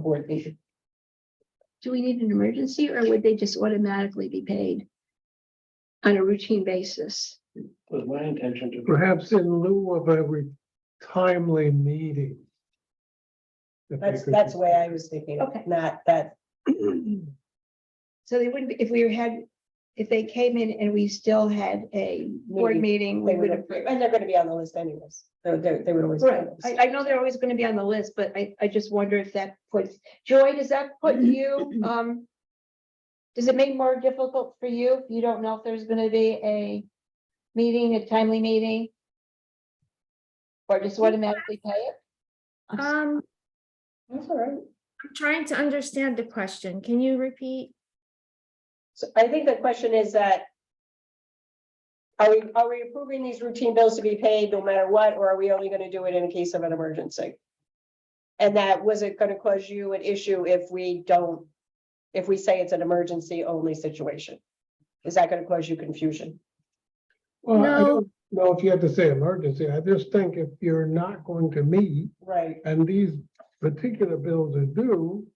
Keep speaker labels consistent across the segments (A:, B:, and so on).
A: board meeting.
B: Do we need an emergency or would they just automatically be paid? On a routine basis?
C: was my intention to.
D: Perhaps in lieu of a re- timely meeting. If they
A: That's,
D: could-
A: that's the way I was thinking, of it,
B: Okay.
A: not that,
B: So they wouldn't, be if we had, if they came in and we still had a board
A: Maybe
B: meeting, we
A: they would
B: would
A: have,
B: approve.
A: and they're gonna be on the list anyways, they, they they would always. be on
B: Right,
A: the list.
B: I, I know they're always gonna be on the list, but I, I just wonder if that puts, Joy, does that put you, um. Does it make more difficult for you? if You don't know if there's gonna be a meeting, a timely meeting? Or just automatically pay it? I'm s-
E: Um,
A: That's all right.
E: I'm trying to understand the question. Can you repeat?
A: So I think the question is that. Are we, are we approving these routine bills to be paid no matter what, or are we only gonna do it in case of an emergency? And that, was it gonna cause you an issue if we don't, if we say it's an emergency only situation? Is that gonna cause you confusion?
D: Well, I
E: No.
D: don't know if you have to say emergency. I just think if you're not going to meet
A: Right.
D: and these particular bills are due,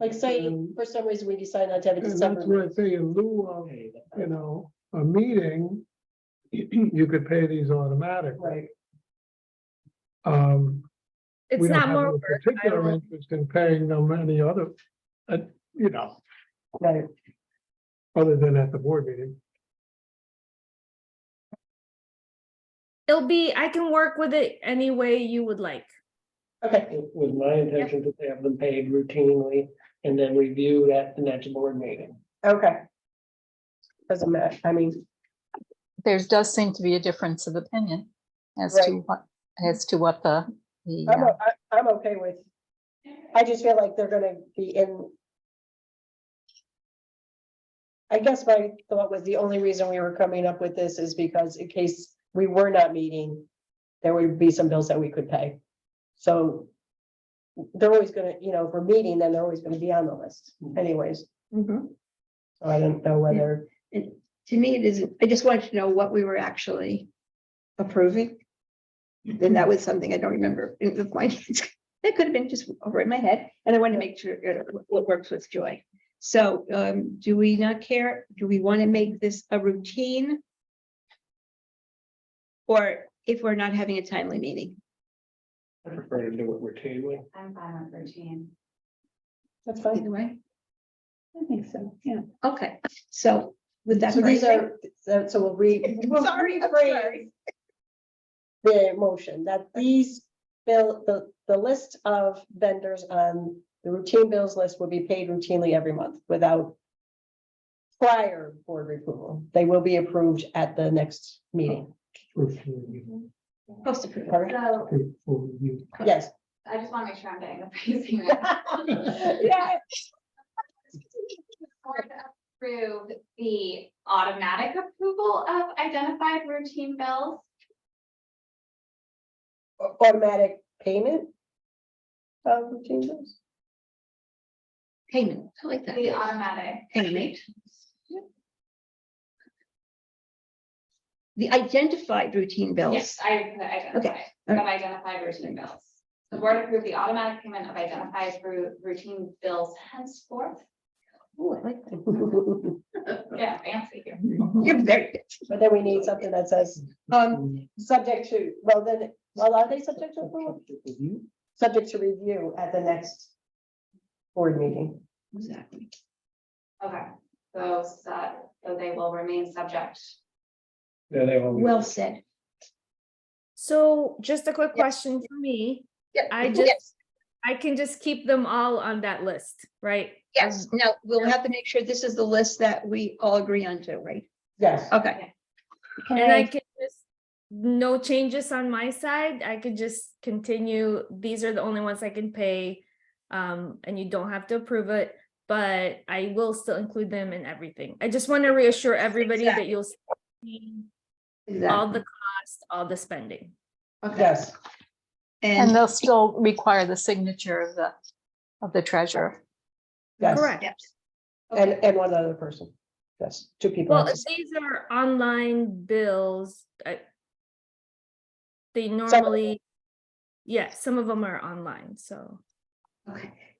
A: Like say,
D: Um,
A: for some reason, we decide not to have a
D: and that's why
A: December.
D: I say in lieu of,
C: Okay,
D: you know, a meeting, you could pay these automatically.
A: Right,
D: Um,
E: It's
D: we don't
E: not
D: have
E: more
D: no
E: work. I
D: Particular
E: will-
D: interest in paying them any other, uh, you know,
A: right.
D: other than at the board meeting.
E: It'll be, I can work with it any way you would like.
A: Okay,
C: It was my intention to have them paid routinely and then reviewed at the next board meeting.
A: okay. Doesn't matter, I mean,
F: there does seem to be a difference of opinion as to what, as to what the, the,
A: I'm,
F: uh,
A: o- I- I'm okay with. I just feel like they're gonna be in. I guess my thought was the only reason we were coming up with this is because in case we were not meeting, there would be some bills that we could pay. So. They're always gonna, you know, if we're meeting, then they're always gonna be on the list anyways,
B: Mhm.
A: so I don't know whether.
B: And to me, it is, I just wanted to know what we were actually approving. Then that was something I don't remember. in the finance. That could have been just over in my head, and I wanted to make sure it what works with Joy. So um, do we not care? Do we want to make this a routine? Or if we're not having a timely meeting?
C: I prefer to do it routinely.
G: I'm fine with routine.
A: That's fine.
B: Either way,
G: I think so, yeah.
B: okay, so with that.
A: So these
B: phrasing-
A: are, so so we'll read. we'll
B: Sorry, I'm
A: rephrase
B: sorry.
A: The motion that these bill, the, the list of vendors on the routine bills list will be paid routinely every month without prior board approval. They will be approved at the next meeting.
B: Post approval.
A: Correct?
G: So
A: Yes.
G: I just want to make sure I'm getting the phrasing right.
A: Yeah.
G: Board Approve the automatic approval of identified routine bills.
A: Automatic payment of routine bills.
B: Payment, I like
G: The
B: that.
G: automatic,
B: Payment. The identified routine bills.
G: yes, I put identified, of identified routine bills. The board approve the automatic payment of identified ru- routine bills henceforth.
B: Ooh, Oh, I like that.
G: Yeah, fancy here.
B: You're very good.
A: But then we need something that says, um, subject to, well, then, well, are they subject to approval? Subject to review at the next board meeting.
B: Exactly.
G: Okay, so, so so they will remain subject.
C: Yeah, they all.
B: Well said.
E: So just a quick question for me.
B: Yeah,
E: I just, I can just keep them all on that list, right?
B: Yes, now we'll have to make sure this is the list that we all agree on to, right?
A: Yes.
B: Okay.
E: And I can just, no changes on my side. I could just continue. These are the only ones I can pay. Um, and you don't have to approve it, but I will still include them in everything. I just want to reassure everybody that you'll see all the cost, all the spending.
A: Yes.
F: and
B: And
F: they'll still require the signature of the, of the treasurer.
A: Yes.
E: Correct.
A: And, and one other person. Yes, two people.
E: Well, if these are online bills, I. They
A: them-
E: normally, yeah, some of them are online, so.
B: Okay.